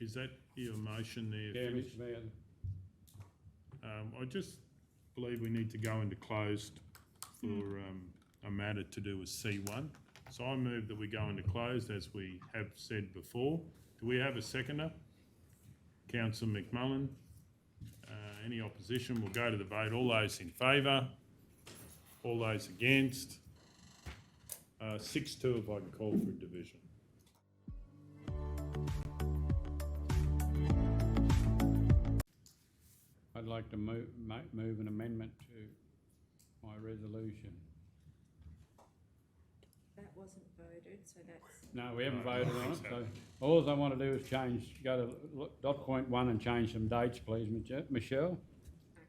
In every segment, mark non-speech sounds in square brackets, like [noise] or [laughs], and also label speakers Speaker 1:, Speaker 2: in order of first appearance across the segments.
Speaker 1: Is that your motion there?
Speaker 2: Yeah,
Speaker 1: finished?
Speaker 2: Mr Mayor,
Speaker 1: Um, I just believe we need to go into closed for, um, a matter to do with C one. So I move that we go into closed as we have said before. Do we have a seconder? Councillor McMullen. Uh, any opposition? We'll go to the vote. All those in favour? All those against? Uh, six two if I can call for a division.
Speaker 2: I'd like to move, ma- move an amendment to my resolution.
Speaker 3: That wasn't voted, so that's,
Speaker 2: No, we haven't
Speaker 1: No, I don't
Speaker 2: voted on
Speaker 4: [laughs]
Speaker 2: it,
Speaker 1: think
Speaker 2: so
Speaker 1: so.
Speaker 2: all I want to do is change, go to lo- dot point one and change some dates, please, Mich- uh, Michelle.
Speaker 3: okay.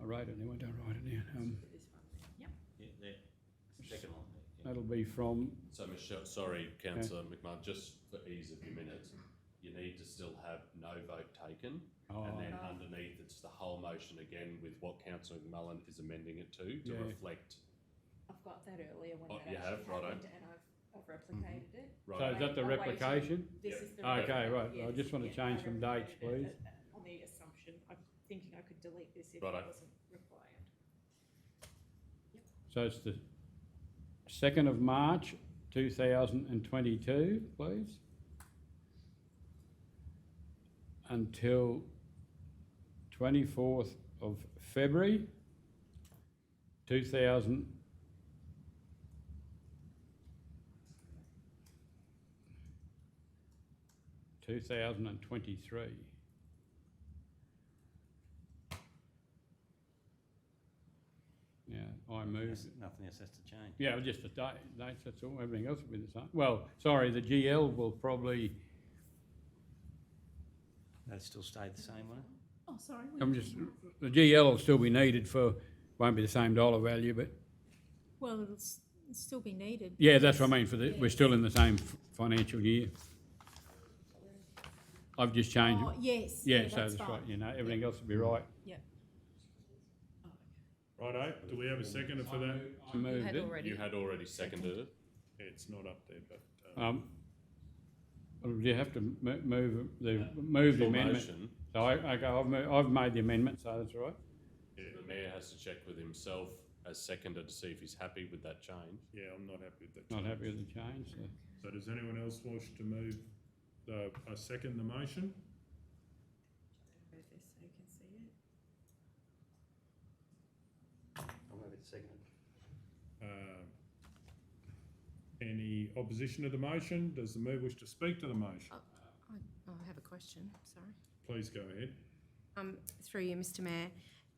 Speaker 2: I wrote it, I won't write it down. Um,
Speaker 3: This one there. Yep.
Speaker 5: Yeah, there. Second one there. yeah.
Speaker 2: That'll be from,
Speaker 4: So Michelle, sorry, councillor McMahon, just for ease of your minutes, you need to still have no vote taken.
Speaker 2: oh,
Speaker 4: And then
Speaker 3: Oh.
Speaker 4: underneath, it's the whole motion again with what councillor McMullen is amending it to, to
Speaker 2: Yeah.
Speaker 4: reflect.
Speaker 3: I've got that earlier when
Speaker 4: Oh,
Speaker 3: that
Speaker 4: you have?
Speaker 3: actually
Speaker 4: Righto.
Speaker 3: happened and I've, I've replicated it.
Speaker 2: so
Speaker 4: Right,
Speaker 2: is that the
Speaker 3: Away- away to-
Speaker 2: replication?
Speaker 3: This
Speaker 4: Mm-hmm. Yeah.
Speaker 3: is the.
Speaker 2: Okay, right, I
Speaker 3: yes,
Speaker 2: just want to
Speaker 3: yeah,
Speaker 2: change
Speaker 3: I
Speaker 2: some
Speaker 3: replicated
Speaker 2: dates,
Speaker 3: it
Speaker 2: please.
Speaker 3: at- at- On the assumption, I'm thinking I could delete this if it
Speaker 4: Righto.
Speaker 3: wasn't required.
Speaker 2: So it's the second of March, two thousand and twenty-two, please. Until twenty-fourth of February, two thousand. Two thousand and twenty-three. Yeah, I move
Speaker 5: Yes, Nothing else has to change.
Speaker 2: yeah, just the date, dates, that's all, everything else will be the same. Well, sorry, the GL will probably,
Speaker 5: That'll still stay the same, won't it?
Speaker 3: Oh, sorry.
Speaker 2: I'm just, the GL will still be needed for, won't be the same dollar value, but,
Speaker 6: Well, it'll s- still be needed.
Speaker 2: yeah, that's what I mean, for the, we're still in the same f- financial year. I've just changed,
Speaker 6: Oh, yes.
Speaker 2: yeah, so
Speaker 6: that's
Speaker 2: that's right,
Speaker 6: fine.
Speaker 2: you know, everything else will be right.
Speaker 1: Righto, do we have a seconder for that?
Speaker 2: I moved it.
Speaker 4: you had already seconded it.
Speaker 1: Yeah, It's not up there, but, uh,
Speaker 2: Um, well, you have to mo- move, the, move the
Speaker 4: Your
Speaker 2: amendment.
Speaker 4: motion,
Speaker 2: So I, I go, I've, mo- I've made the amendment, so that's right.
Speaker 4: the mayor has to check with himself as seconder to see if he's happy with that change.
Speaker 1: yeah, I'm not happy with that.
Speaker 2: Not happy with the change, so.
Speaker 1: So does anyone else wish to move the, I second the motion?
Speaker 3: Move this so you can see it.
Speaker 5: I'll move it second.
Speaker 1: Uh, Any opposition to the motion? Does the mayor wish to speak to the motion?
Speaker 7: Oh, I have a question, sorry.
Speaker 1: Please go ahead.
Speaker 7: Um, through you, Mr Mayor.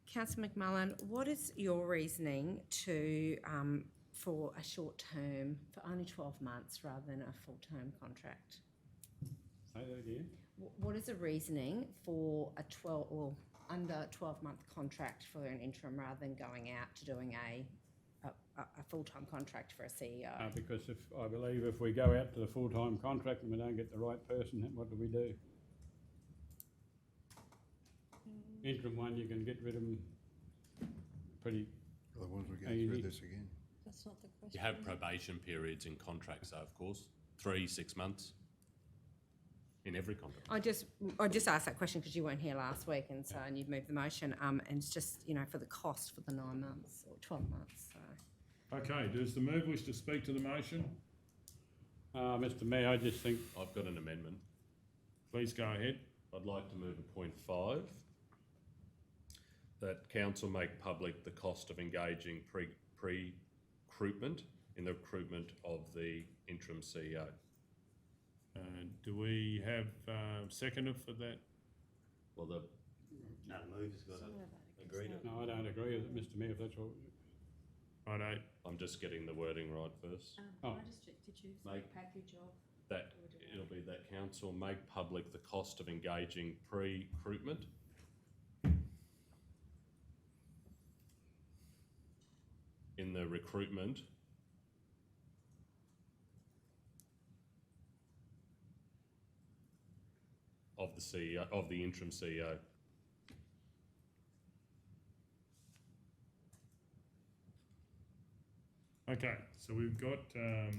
Speaker 7: Councillor McMullen, what is your reasoning to, um, for a short term, for only twelve months rather than a full-term contract?
Speaker 2: Say that again.
Speaker 7: Wh- What is the reasoning for a twelve, or under twelve-month contract for an interim rather than going out to doing a, a, a, a full-time contract for a E
Speaker 2: Uh,
Speaker 7: CEO?
Speaker 2: because if, I believe if we go out to the full-time contract and we don't get the right person, then what do we do? Interim one, you can get rid of them pretty,
Speaker 8: Otherwise, we're
Speaker 2: Are you
Speaker 8: going through
Speaker 2: need-
Speaker 8: this again.
Speaker 3: That's not the question.
Speaker 4: You have probation periods in contracts, though, of course, three, six months in every contract.
Speaker 7: I just, I just asked that question because you weren't here last week and so, and you've moved the motion, um, and it's just, you know, for the cost for the nine months or twelve months, so.
Speaker 1: Okay, does the mayor wish to speak to the motion?
Speaker 2: uh, Mr Mayor, I just think,
Speaker 4: I've got an amendment.
Speaker 1: Please go ahead.
Speaker 4: I'd like to move a point five, that council make public the cost of engaging pre, pre-recruitment in the recruitment of the interim E CEO.
Speaker 1: Uh, do we have, uh, seconder for that?
Speaker 4: Well, the,
Speaker 5: No, move has got to agree to.
Speaker 2: no, I don't agree with it, Mr Mayor, if that's what,
Speaker 1: Righto,
Speaker 4: I'm just getting the wording right first.
Speaker 3: Um,
Speaker 2: Oh.
Speaker 3: can I just check, did you say
Speaker 4: Mike.
Speaker 3: package of?
Speaker 4: That, it'll be that council make public the cost of engaging pre-recruitment in the recruitment of the CEO, of the interim E CEO.
Speaker 1: okay, so we've got, um,